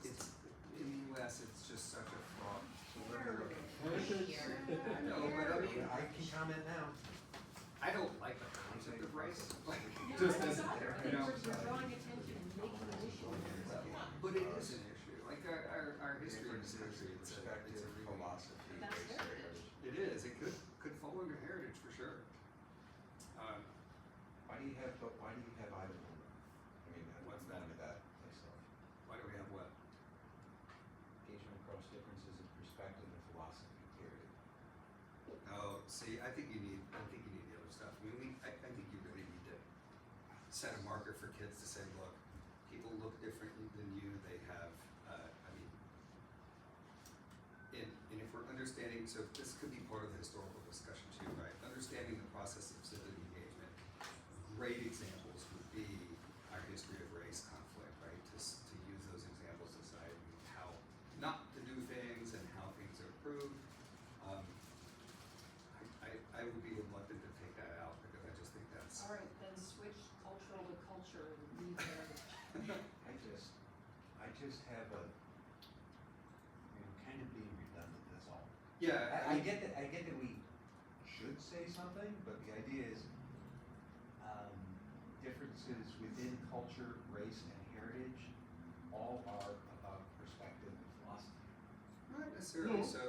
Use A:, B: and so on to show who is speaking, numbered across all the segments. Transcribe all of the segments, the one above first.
A: Um,
B: I know, but I mean,
C: I can comment now.
B: I don't like the concept of race, like, it just isn't there, you know?
D: drawing attention and making an issue
B: But it is an issue, like our, our, our history in this country, it's a, it's
C: Perspective,
B: a really,
C: philosophy,
D: That's
C: based
D: fair.
C: areas.
B: it is, it could, could fall under heritage for sure. Uh,
C: Why do you have, but why do you have item number? I mean, I
B: What's
C: don't
B: that?
C: know that myself.
B: why do we have what?
C: Engagement across differences of perspective and philosophy, period.
B: Oh, see, I think you need, I think you need the other stuff. I mean, we, I, I think you really need to set a marker for kids to say, look, people look differently than you. They have, uh, I mean, and, and if we're understanding, so this could be part of the historical discussion too, right? Understanding the process of civic engagement. Great examples would be our history of race conflict, right? To, s- to use those examples to decide how not to do things and how things are improved. Um, I, I, I would be reluctant to take that out because I just think that's,
D: All right, then switch cultural to culture and leave heritage.
C: I just, I just have a, I'm kind of being redundant, that's all.
B: yeah,
C: I, I get that, I get that we should say something, but the idea is, um, differences within culture, race, and heritage all are about perspective and philosophy.
B: Not necessarily,
C: No.
B: so,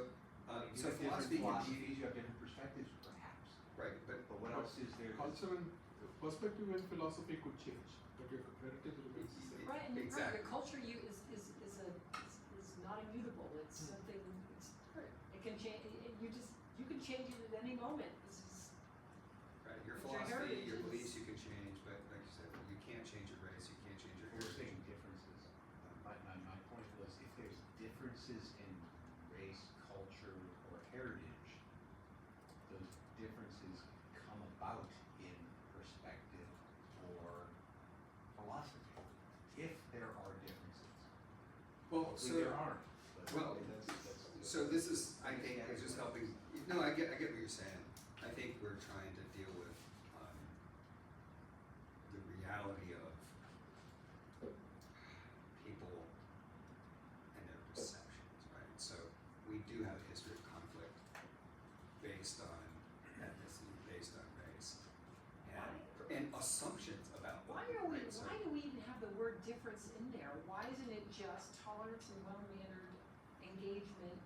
B: uh,
C: You
B: so
C: have different
B: philosophy can be,
C: philosophies, you have different perspectives, perhaps,
B: right, but,
C: but what else is there? that's-
E: Culture and perspective and philosophy could change, but your heritage remains the same.
D: Right, and you're right,
B: Exactly.
D: your culture you is, is, is a, is, is not immutable, it's something, it's, it can change, you just, you can change it at any moment, this is,
B: right, your
D: Your
B: philosophy, your
D: heritage
B: beliefs
D: is-
B: you can change, but like you said, you can't change your race, you can't change your
C: We're
B: heritage.
C: saying differences. My, my, my point was if there's differences in race, culture, or heritage, those differences come about in perspective or philosophy. If there are differences.
B: Well,
C: Hopefully
B: so,
C: there aren't, but
B: well,
C: that's, that's.
B: so this is, I
C: that's
B: think,
C: the
B: is just
C: category.
B: helping, no, I get, I get what you're saying. I think we're trying to deal with, um, the reality of people and their perceptions, right? So we do have a history of conflict based on ethnicity, based on race, and, and assumptions about
D: why
B: what
D: are we,
B: race
D: why do we even have the word difference in there? Why isn't it just tolerance and well-mannered engagement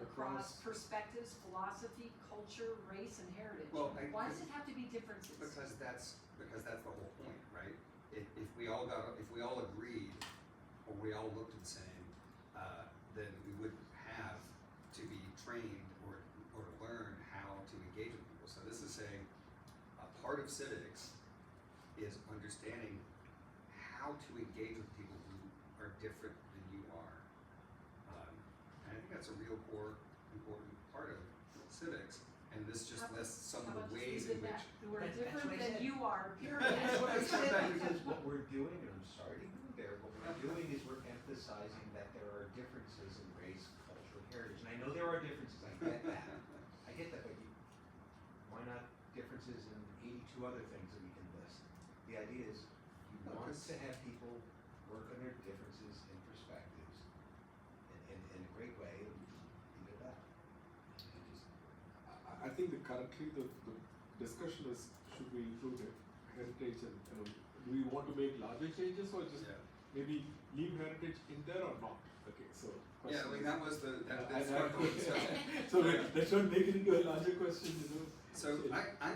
D: across
E: Across-
D: perspectives, philosophy, culture, race, and heritage?
B: Well, I-
D: Why does it have to be differences?
B: Because that's, because that's the whole point, right? If, if we all got, if we all agreed, or we all looked the same, uh, then we wouldn't have to be trained or, or to learn how to engage with people. So this is saying, a part of civics is understanding how to engage with people who are different than you are. Um, and I think that's a real core, important part of civics, and this just
D: How-
B: lists some
D: How
B: of the
D: about
B: ways
D: just leave
B: in which
D: it that, who are
C: That- that's what
D: different
C: I
D: than
C: said.
D: you are, period.
C: That's what I said,
B: Sometimes
C: because what we're doing, and I'm sorry to go there, what we're doing is we're emphasizing that there are differences in race, culture, and heritage, and I know there are differences, I get that. I get that, but you, why not differences in eighty-two other things that we can list? The idea is, you
B: Well,
C: want
B: 'cause-
C: to have people work on their differences and perspectives, and, and, in a great way, and leave it at that.
E: I, I think that currently the, the discussion is, should we include it, heritage and, you know, do we want to make larger changes or just
B: Yeah.
E: maybe leave heritage in there or not? Okay, so.
B: Yeah, I
E: question
B: mean,
E: is-
B: that was the,
E: Yeah,
B: that,
E: I-
B: that's
E: I-
B: our whole discussion.
E: So that, that should make it into a larger question, you know?
B: So
E: Okay.
B: I, I,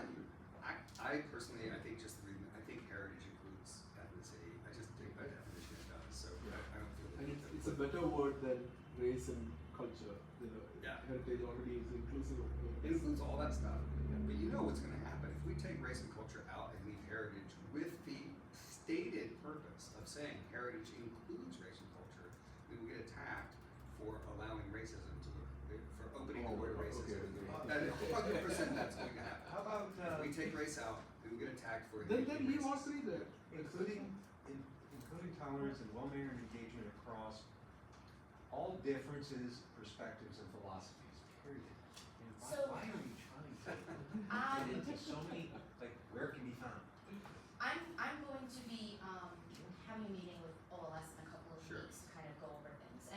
B: I, I personally, I think just, the reason- I think heritage includes ethnicity, I just think by definition it does, so I, I don't feel the
E: And
B: need
E: it's,
B: to
E: it's a
B: put-
E: better word than race and culture, you know,
B: Yeah.
E: heritage already is inclusive of.
B: It includes all that stuff, but you know what's gonna happen, if we take race and culture out and leave heritage with the stated purpose of saying heritage includes race and culture, we will get attacked for allowing racism to, for opening the
E: Oh,
B: word
E: okay,
B: racism.
E: okay.
B: And hundred percent that's going to happen.
C: How about, uh?
B: If we take race out, we will get attacked for. being
E: Then, then leave all
B: racist.
E: three there.
C: including in, including tolerance and well-mannered engagement across all differences, perspectives, and philosophies. Period. And why,
A: So-
C: why are we trying to
A: Um,
C: get into so many like where it can be found?
A: I'm, I'm going to be, um, having a